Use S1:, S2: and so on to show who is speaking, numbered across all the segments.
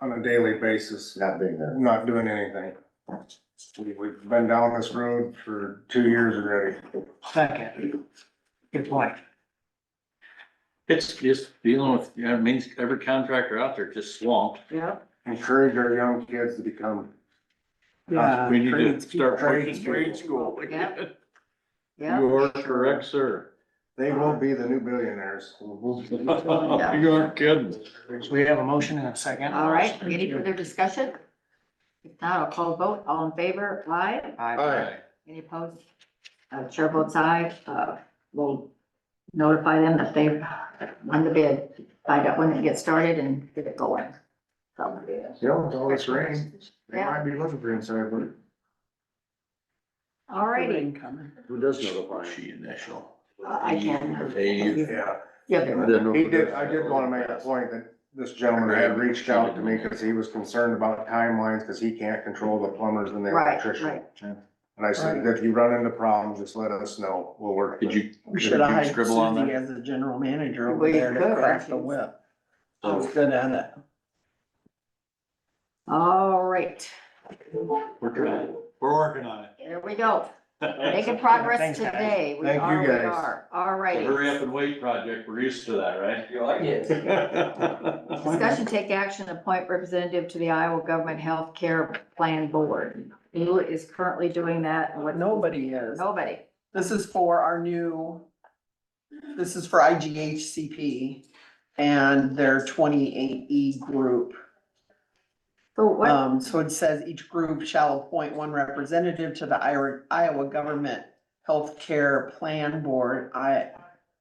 S1: on a daily basis,
S2: not being there.
S1: not doing anything. We- We've been down this road for two years already.
S3: Second. Good point.
S4: It's just dealing with, you know, it means every contractor out there just swamped.
S3: Yeah.
S1: Encourage our young kids to become,
S5: Uh,
S3: Yeah.
S4: We need to start
S1: trades
S4: pushing trade school.
S3: Yeah. Yeah.
S4: You are correct, sir.
S1: they will be the new billionaires.
S4: You aren't kidding.
S3: So we have a motion and a second.
S6: All right, any further discussion? If not, I'll call a vote. All in favor, aye.
S4: Aye.
S6: Any opposed? Uh, chair votes aye. Uh, we'll notify them that they won the bid, find out when it gets started and get it going. So,
S1: You know, with all this rain, they
S6: Yeah.
S1: might be looking for inside, but
S6: all righty.
S2: Who does notify? him?
S4: She initial.
S6: I can.
S4: Hey,
S1: yeah.
S6: Yeah, there
S2: I
S6: we go.
S2: didn't know
S1: He
S2: who
S1: did,
S2: does
S1: I did
S2: that.
S1: wanna make a point that this gentleman had reached out to me because he was concerned about timelines, because he can't control the plumbers and the
S6: Right,
S1: electrician.
S6: right.
S1: And I said, if you run into problems, just let us know, we'll work.
S4: Did
S1: with
S4: you,
S3: We
S4: did
S3: should have
S4: you
S3: hired
S4: scribble on
S3: Suzie
S4: that?
S3: as the general manager
S6: We
S3: over there to
S6: could,
S3: crack the
S6: actually.
S3: whip. I was
S4: so
S3: good at it.
S6: All right,
S4: we're trying, we're working on it.
S6: there we go. Making progress
S3: Thanks, guys.
S6: today. We
S1: Thank you,
S6: are, we
S1: guys.
S6: are. All
S4: The
S6: righty.
S4: Hurry up and wait project, we're used to that, right? You like
S3: it?
S6: Discussion, take action, appoint representative to the Iowa Government Health Care Plan Board. Who is currently doing that and what?
S3: But nobody is.
S6: Nobody.
S3: This is for our new, this is for IGHCP and their twenty-eight E group.
S6: So
S1: Uh,
S6: what,
S3: Um, so it says each group shall appoint one representative to the Iowa, Iowa Government Healthcare Plan Board, I,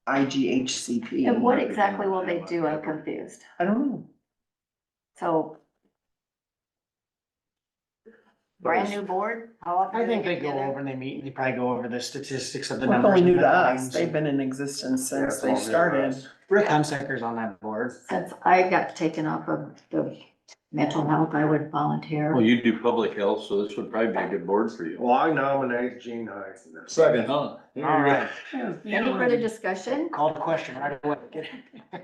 S3: IGHCP.
S6: and what exactly will they do? I'm confused.
S3: I don't know.
S6: So. Brand new board? How often
S5: I
S6: do
S5: think they go
S6: get together?
S5: over and they meet and they probably go over the statistics of the
S3: Well,
S5: numbers.
S3: only
S5: and
S3: new
S5: the
S3: to us,
S5: lines.
S3: they've been in existence
S1: Yeah,
S3: since
S1: it's
S3: they
S1: all new to
S3: started.
S1: us.
S5: Rick Hunsaker's on that board.
S6: Since I got taken off of the mental health, I would
S4: Well,
S6: volunteer.
S4: you do public health, so this would probably be a good board for you.
S1: Well, I nominate Gene Heisen.
S4: Second.
S5: All
S4: All
S5: right,
S6: Any further discussion?
S5: called question right away.
S6: All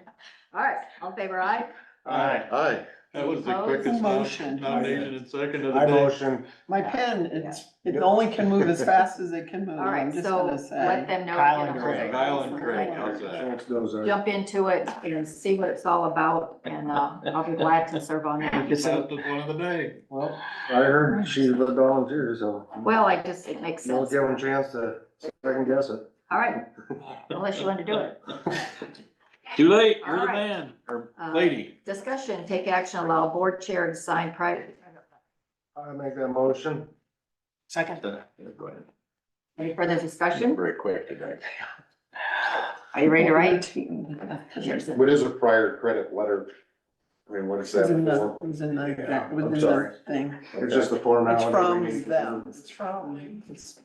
S6: right, all in favor aye?
S1: Aye.
S2: Aye,
S4: That was the
S6: Opposed?
S4: quickest
S3: Motion.
S4: nom- nomination and second of the
S1: I
S4: day.
S1: motion,
S3: My pen, it's, it only can move as fast as it can move,
S6: All
S3: I'm
S6: right,
S3: just
S6: so
S3: gonna
S6: let
S3: say.
S6: them know.
S5: Kyle and
S6: you know,
S5: Craig.
S4: Kyle and Craig, how's that?
S1: chance goes, uh,
S6: Jump into it and see what it's all about and, uh, I'll be glad to serve on it.
S5: It's a-
S4: Fastest one of the day.
S5: well,
S1: I heard she's a volunteer, so
S6: Well, I just, it makes
S1: don't
S6: sense.
S1: give them a chance to second guess it.
S6: All right, unless you want to do it.
S4: Too late, you're
S6: All
S4: the
S6: right.
S4: man or
S6: Uh,
S4: lady.
S6: Discussion, take action, allow board chair to sign private.
S1: I make that motion.
S5: second,
S6: Any further discussion?
S2: very quick today.
S6: Are you ready to write?
S3: It
S6: Here's it.
S2: What is a prior credit letter? I mean, what is
S3: was
S2: that
S3: in the,
S2: for?
S3: it was in the,
S1: Yeah, I'm
S3: it was in
S2: sorry.
S3: the thing.
S1: It's just a
S3: It's
S1: formality. we
S3: from
S1: need to
S3: them,
S1: do.
S3: it's from, it's.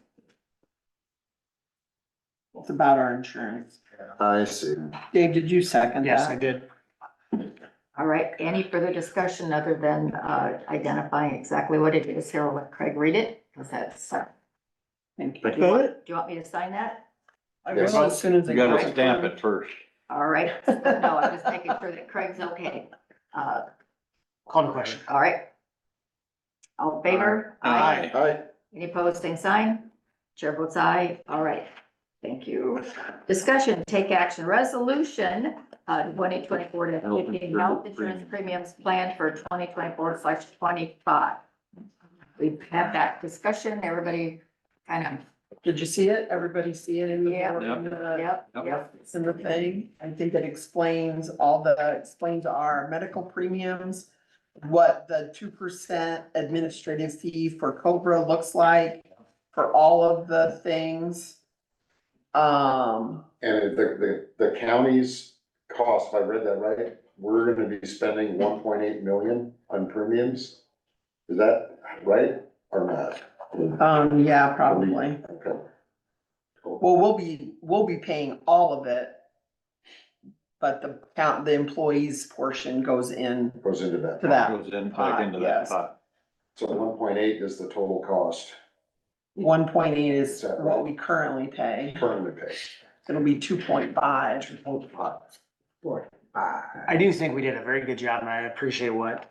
S3: It's about our insurance.
S2: I see.
S3: Dave, did you second
S5: yes, I
S3: that?
S5: did.
S6: All right, any further discussion other than, uh, identifying exactly what it is here? I'll let Craig read it. Cause that's, uh,
S3: Thank
S6: do you
S3: you.
S6: want, do you want me to sign that?
S3: I will as soon as I.
S4: You gotta
S3: get
S4: stamp it first.
S6: All right, no, I'm just making sure that Craig's okay. Uh,
S5: Called a question.
S6: all right. All in favor?
S4: Aye.
S2: Aye,
S6: Any opposed, same sign? Chair votes aye. All right. Thank you. Discussion, take action, resolution, uh, twenty twenty-four to
S2: Health
S6: fifteen,
S2: insurance
S6: health insurance premiums planned for twenty twenty-four slash twenty-five. We've had that discussion. Everybody kind
S3: Did you see it? Everybody see it in the,
S6: Yeah.
S3: in the-
S6: of, yep,
S4: Yep.
S6: yep.
S3: It's in the thing. I think it explains all the, explains our medical premiums, what the two percent administrative fee for Cobra looks like for all of the things. Um,
S2: and the, the, the county's cost, if I read that right, we're gonna be spending one point eight million on premiums? Is that right or not?
S3: um, yeah, probably.
S2: Okay.
S3: Well, we'll be, we'll be paying all of it. But the count, the employees portion goes in
S2: Goes into that.
S3: to that.
S4: Goes in, back
S2: Ah,
S3: pot,
S4: into that
S3: yes.
S4: pot.
S2: So one point eight is the total cost
S3: One point eight is what we currently pay.
S2: currently paid.
S3: It'll be two point five.
S5: I do think we did a very good job and I appreciate what